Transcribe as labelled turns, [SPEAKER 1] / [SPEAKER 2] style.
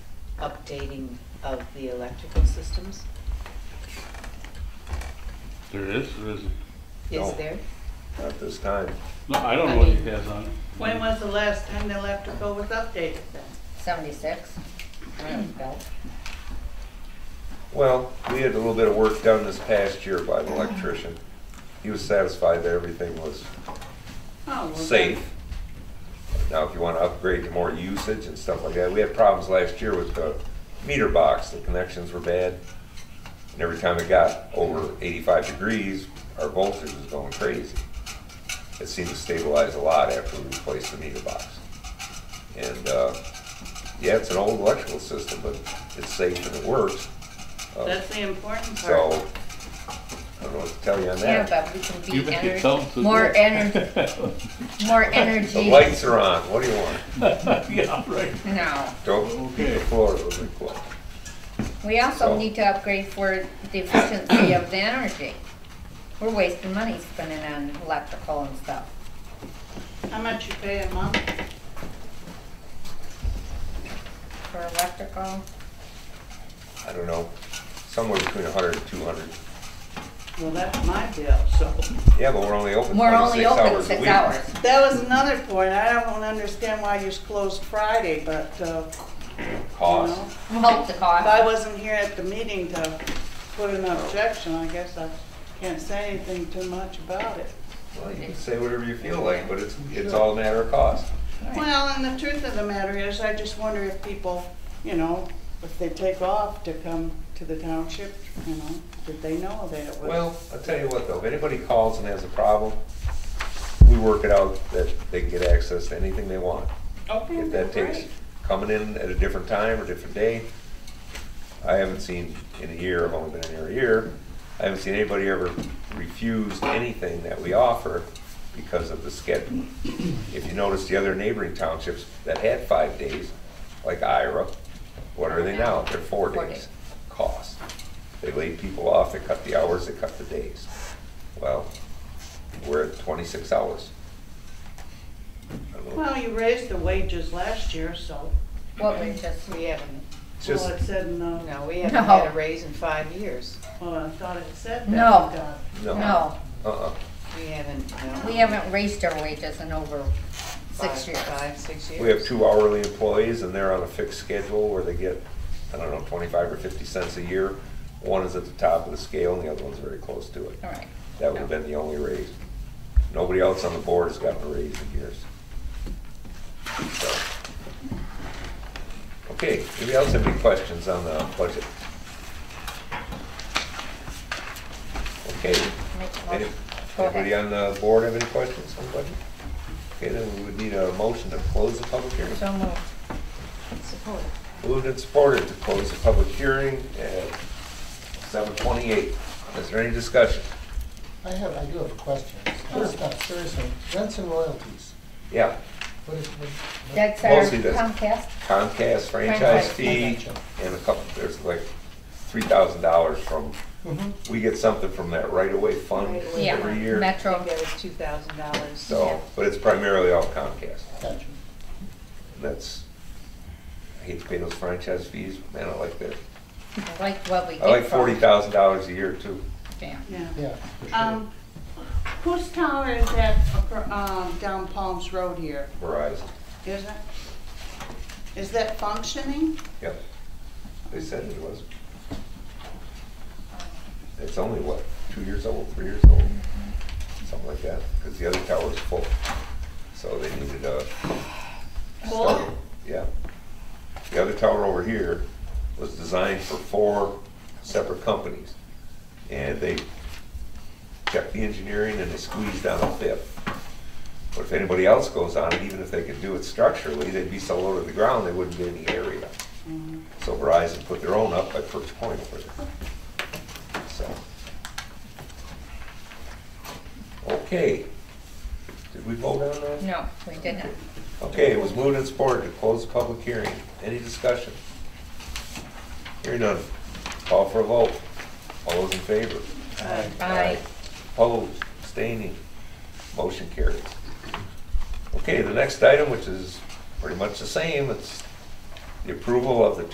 [SPEAKER 1] updating of the electrical systems?
[SPEAKER 2] There is, there isn't.
[SPEAKER 1] Is
[SPEAKER 3] No.
[SPEAKER 1] there?
[SPEAKER 3] Not this time.
[SPEAKER 2] No, I don't know what he has on.
[SPEAKER 4] When was the last time the electrical was updated then?
[SPEAKER 5] 76. Rings a bell.
[SPEAKER 3] Well, we had a little bit of work done this past year by an electrician. He was satisfied that everything was
[SPEAKER 4] Oh, well, then-
[SPEAKER 3] safe. Now, if you want to upgrade to more usage and stuff like that, we had problems last year with the meter box, the connections were bad. And every time it got over eighty-five degrees, our voltage was going crazy. It seemed to stabilize a lot after we replaced the meter box. And, uh, yeah, it's an old electrical system, but it's safe and it works. Uh,
[SPEAKER 4] That's the important part.
[SPEAKER 3] So, I don't know what to tell you on
[SPEAKER 5] Yeah,
[SPEAKER 3] that.
[SPEAKER 5] but we can
[SPEAKER 2] You
[SPEAKER 5] be
[SPEAKER 2] can
[SPEAKER 5] ener-
[SPEAKER 2] tell us to
[SPEAKER 5] more
[SPEAKER 2] do it.
[SPEAKER 5] ener- more energy.
[SPEAKER 3] The lights are on, what do you want?
[SPEAKER 2] Yeah, right.
[SPEAKER 5] No,
[SPEAKER 3] Don't beat the floor with a club.
[SPEAKER 5] we also
[SPEAKER 3] So-
[SPEAKER 5] need to upgrade for the efficiency of the energy. We're wasting money spending on electrical and stuff.
[SPEAKER 4] How much you pay a month?
[SPEAKER 5] For electrical,
[SPEAKER 3] I don't know, somewhere between 100 and 200.
[SPEAKER 4] Well, that's my bill, so.
[SPEAKER 3] Yeah, but we're only open
[SPEAKER 5] we're only
[SPEAKER 3] 26
[SPEAKER 5] open
[SPEAKER 3] hours a
[SPEAKER 5] six
[SPEAKER 3] week.
[SPEAKER 5] hours.
[SPEAKER 4] That was another point. I don't understand why you're closed Friday, but, uh, you know.
[SPEAKER 3] Cost,
[SPEAKER 5] Help the
[SPEAKER 4] If I
[SPEAKER 5] cost.
[SPEAKER 4] wasn't here at the meeting to put an objection, I guess I can't say anything too much about it.
[SPEAKER 5] Mm-hmm.
[SPEAKER 3] well, you can say whatever you feel like, but it's, it's all a matter of cost.
[SPEAKER 4] Well, and the truth of the matter is, I just wonder if people, you know, if they take off to come to the township, you know, did they know that it was?
[SPEAKER 3] Well, I'll tell you what though, if anybody calls and has a problem, we work it out that they can get access to anything they want.
[SPEAKER 4] Okay,
[SPEAKER 3] If that takes
[SPEAKER 4] great.
[SPEAKER 3] coming in at a different time or different day, I haven't seen in a year, I've only been in here a year, I haven't seen anybody ever refuse anything that we offer because of the schedule. If you notice the other neighboring townships that had five days, like Ira, what are they now? They're four
[SPEAKER 5] Four
[SPEAKER 3] days
[SPEAKER 5] days.
[SPEAKER 3] cost. They laid people off, they cut the hours, they cut the days. Well, we're at twenty-six hours. I don't know.
[SPEAKER 4] Well, you raised the wages last year, so,
[SPEAKER 5] What we just,
[SPEAKER 1] We haven't,
[SPEAKER 3] Just-
[SPEAKER 4] well, it said in the,
[SPEAKER 1] no, we haven't had a
[SPEAKER 5] No.
[SPEAKER 1] raise in five years.
[SPEAKER 4] well, I thought it said that.
[SPEAKER 5] No.
[SPEAKER 4] uh,
[SPEAKER 5] no,
[SPEAKER 3] Uh-uh.
[SPEAKER 1] We haven't, no.
[SPEAKER 5] we haven't raised our wages in over six
[SPEAKER 1] Five-
[SPEAKER 5] years.
[SPEAKER 1] Five, six years.
[SPEAKER 3] We have two hourly employees and they're on a fixed schedule where they get, I don't know, twenty-five or fifty cents a year. One is at the top of the scale and the other one's very close to it.
[SPEAKER 5] All right.
[SPEAKER 3] That would have been the only raise. Nobody else on the board has gotten a raise in years. So. Okay, anybody else have any questions on the budget? Okay,
[SPEAKER 5] Make a
[SPEAKER 3] any-
[SPEAKER 5] motion. Go ahead.
[SPEAKER 3] anybody on the board have any questions on the budget? Okay, then we would need a motion to close the public hearing.
[SPEAKER 5] So moved.
[SPEAKER 1] Support.
[SPEAKER 3] Moved and supported to close the public hearing at seven twenty-eight. Is there any discussion?
[SPEAKER 6] I have, I do have a question. It's not seriously, rents and royalties,
[SPEAKER 3] Yeah,
[SPEAKER 6] what is, what?
[SPEAKER 5] That's our
[SPEAKER 3] Mostly this.
[SPEAKER 5] Comcast.
[SPEAKER 3] Comcast franchise
[SPEAKER 5] Franchise,
[SPEAKER 3] fee
[SPEAKER 6] gotcha.
[SPEAKER 3] and a couple, there's like three thousand dollars from,
[SPEAKER 6] Mhm.
[SPEAKER 3] we get something from that right away fund
[SPEAKER 1] Right away.
[SPEAKER 5] Yeah,
[SPEAKER 3] every year.
[SPEAKER 1] I think
[SPEAKER 5] Metro.
[SPEAKER 1] that was two thousand dollars.
[SPEAKER 3] So, but it's primarily all Comcast.
[SPEAKER 6] Gotcha.
[SPEAKER 3] And that's, I hate to pay those franchise fees, man, I like that.
[SPEAKER 5] I like what we get.
[SPEAKER 3] I like
[SPEAKER 5] for
[SPEAKER 3] forty
[SPEAKER 5] it.
[SPEAKER 3] thousand dollars a year too.
[SPEAKER 5] Yeah.
[SPEAKER 4] Yeah.
[SPEAKER 6] Yeah, for sure.
[SPEAKER 4] Um, whose tower is that, acro- um, down Palms Road here?
[SPEAKER 3] Verizon,
[SPEAKER 4] Is it? Is that functioning?
[SPEAKER 3] yep. They said it was. It's only what, two years old, three years old, something like that, because the other tower's full. So they needed a
[SPEAKER 4] Full?
[SPEAKER 3] Yeah. The other tower over here was designed for four separate companies. And they kept the engineering and they squeezed out a fifth. But if anybody else goes on it, even if they could do it structurally, they'd be so low to the ground, they wouldn't get any area. So Verizon put their own up by Perch Point over there. So. Okay. Did we vote on that?
[SPEAKER 5] No, we didn't.
[SPEAKER 3] Okay, it was moved and supported to close the public hearing. Any discussion? Hearing none. Call for a vote. All those in favor?
[SPEAKER 5] Aye.
[SPEAKER 3] Opposed, abstaining, motion carries. Okay, the next item, which is pretty much the same, it's the approval of the